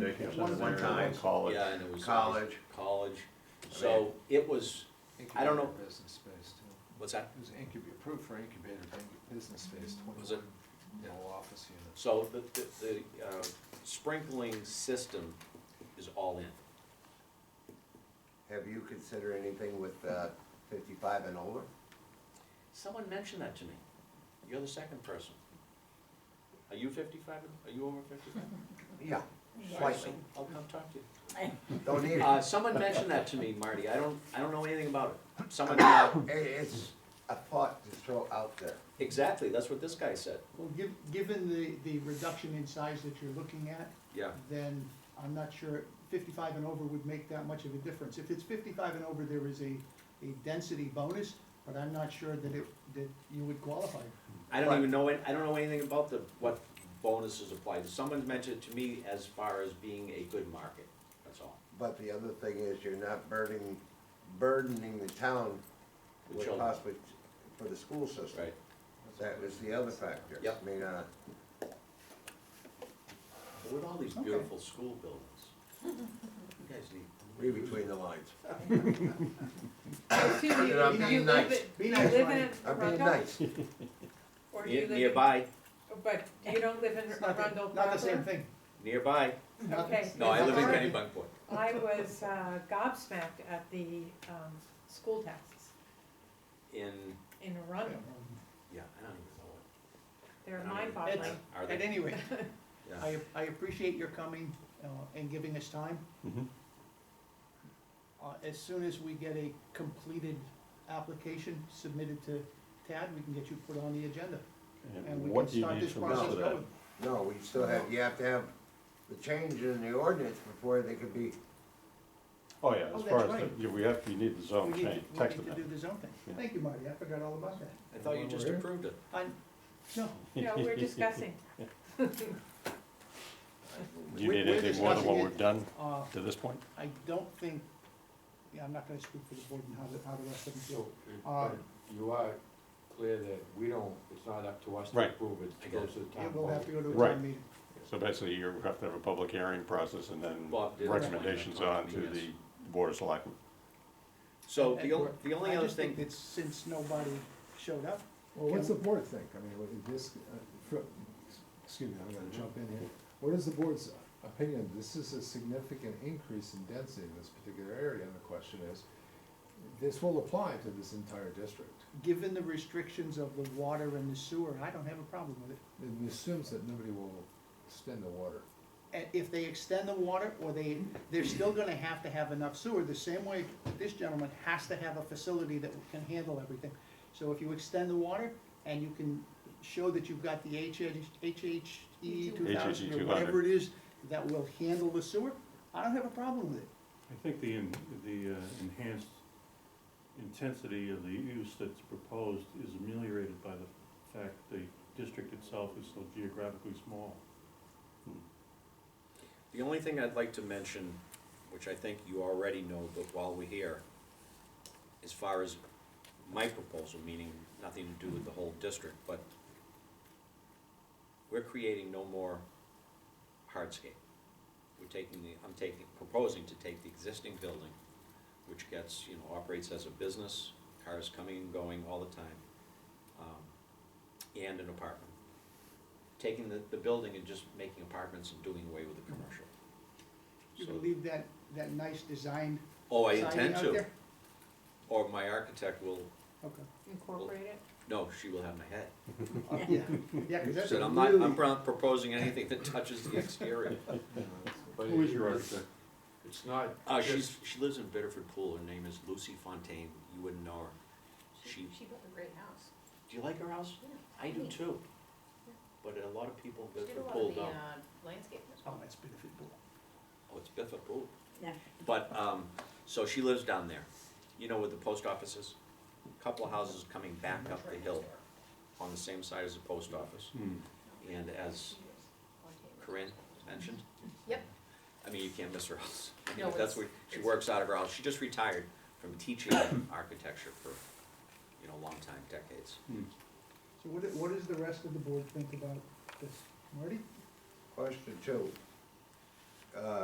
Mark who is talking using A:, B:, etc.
A: relationships
B: One-
A: under
B: one
A: there,
B: time.
A: and college.
C: Yeah, and it was.
A: College.
C: College, so it was, I don't know.
D: Business space too.
C: what's that?
D: It was incubator, approved for incubator, bu- business space,
C: Was it?
D: twenty-one, no office units.
C: So the, the, the uh, sprinkling system is all in.
E: Have you considered anything with uh, fifty-five and older?
C: Someone mentioned that to me. You're the second person. Are you fifty-five? Are you over fifty-five?
E: Yeah, slightly.
C: I'll come talk to you.
E: Don't need
C: Uh,
E: it.
C: someone mentioned that to me, Marty. I don't, I don't know anything about it. Someone, uh,
E: It- It's a thought to throw out there.
C: exactly, that's what this guy said.
B: Well, giv given the, the reduction in size that you're looking at,
C: Yeah,
B: then I'm not sure fifty-five and over would make that much of a difference. If it's fifty-five and over, there is a, a density bonus, but I'm not sure that it, that you would qualify.
C: I don't even know, it- I don't know anything about the, what bonuses apply. Someone mentioned it to me as far as being a good market, that's all.
E: But the other thing is you're not burdening, burdening the town
C: The
E: with
C: children.
E: possibly for the school system.
C: Right.
E: That was the other factor.
C: Yep.
E: I mean, uh,
C: But With all these
B: Okay.
C: beautiful school buildings. You guys need.
E: read between the lines.
F: Excuse me,
E: And I'm
F: do
E: being
F: you live
E: nice.
F: in-
B: Be
F: you
B: nice,
F: live
B: Ryan.
F: in
E: I'm being
F: Arundel?
E: nice.
F: Or do
C: Near-
F: you live in-
C: Nearby,
F: But you don't live in
B: It's not the-
F: Arundel proper?
B: Not the same thing.
C: nearbuy.
B: Not the-
F: Okay.
C: No, I live in
F: Alright.
C: Kennebunkport.
F: I was uh, gobsmacked at the um, school taxes
C: In,
F: in Arundel.
C: yeah, I don't even
F: They're
C: know what. I don't even-
F: mind-boggling.
C: Are
B: At
C: they?
B: any rate,
C: Yeah.
B: I, I appreciate your coming uh, and giving us time.
C: Mm-hmm.
A: Mhm.
B: Uh, As soon as we get a completed application submitted to Tad, we can get you put on the agenda. And
A: And
B: we
A: what
B: can
A: do you
B: start
A: need
B: this
A: from us
B: process
A: for that?
B: going.
E: No, we still have, you have to have the change in the ordinance before they could be,
A: Oh, yeah,
B: Oh,
A: as
B: that's
A: far as,
B: right.
A: the- yeah, we have, we need the
B: We
A: zone
B: need to-
A: change, Oh, text
B: We need to do
A: amendment.
B: the zone
A: Yeah.
B: thing. Thank you, Marty, I forgot all about that.
C: I thought you just approved it.
B: I, no,
F: No, we're discussing.
A: Do you
B: We-
A: need
B: we're
A: anything more than what
B: discussing
A: we've
B: it.
A: done
B: uh,
A: to this point?
B: I don't think, yeah, I'm not gonna speak for the board and how the, how the rest of them feel.
G: So,
B: Uh,
G: but you are clear that we don't, it's not up to us to
A: Right.
G: approve it,
C: I
G: it
C: get
G: goes to the town.
B: It will have to go to a
A: Right.
B: town meeting.
A: So basically, you have to have a public hearing process and then
C: Bob did.
A: recommendations on to the board of selectmen.
C: So
B: At
C: the only,
B: work.
C: the only
B: I
C: other
B: just think
C: thing,
B: that since nobody showed up,
D: Well,
B: what's the
D: board think? I mean, would this, uh, excuse me, I'm gonna jump in here. What is the board's opinion? This is a significant increase in density in this particular area, and the question is, this will apply to this entire district.
B: given the restrictions of the water and the sewer, I don't have a problem with it.
D: It assumes that nobody will extend the water.
B: And if they extend the water, or they, they're still gonna have to have enough sewer, the same way this gentleman has to have a facility that can handle everything. So if you extend the water, and you can show that you've got the HH, HHE E two thousand, or
A: 200.
B: whatever it is, that will handle the sewer, I don't have a problem with it.
H: I think the, en- the uh, enhanced intensity of the use that's proposed is ameliorated by the fact the district itself is so geographically small.
C: the only thing I'd like to mention, which I think you already know, but while we're here, as far as my proposal, meaning nothing to do with the whole district, but we're creating no more hardscape. We're taking the, I'm taking, proposing to take the existing building, which gets, you know, operates as a business, cars coming and going all the time, um, and an apartment. Taking the, the building and just making apartments and doing away with the commercial.
B: You
C: So-
B: can leave that, that nice designed
C: Oh, I
B: siding
C: intend
B: out
C: to,
B: there.
C: or my architect will,
B: Okay,
F: Incorporate it.
C: no, she will have my head.
B: Uh, yeah, yeah, cause that's a
C: Said,
B: really.
C: I'm not, I'm not proposing anything that touches the exterior.
G: But
H: Who is
G: it-
H: your
G: it's-
H: architect?
G: It's not.
C: Uh,
G: just-
C: she's, she lives in Bitterford Pool, her name is Lucy Fontaine, you wouldn't know her. She,
I: She built a great house.
C: do you like her house?
I: Yeah.
C: I do
I: Neat.
C: too. But a lot of people in
I: She did a
C: Bitterford
I: lot
C: Pool
I: of the
C: don't.
I: uh, landscapers.
B: Oh, that's benefit pool.
C: Oh, it's Bitterford Pool.
I: Yeah.
C: But, um, so she lives down there, you know where the post office is? Couple of houses coming back up the hill on the same side as the post office.
H: Hmm.
C: And as Corinne mentioned.
I: Yep.
C: I mean, you can't miss her house. I mean,
I: No,
C: That's
I: it's-
C: where, she
I: it's-
C: works out of her house. She just retired from teaching architecture for, you know, a long time, decades.
B: So what, do- what does the rest of the board think about this? Marty?
E: question two. Uh,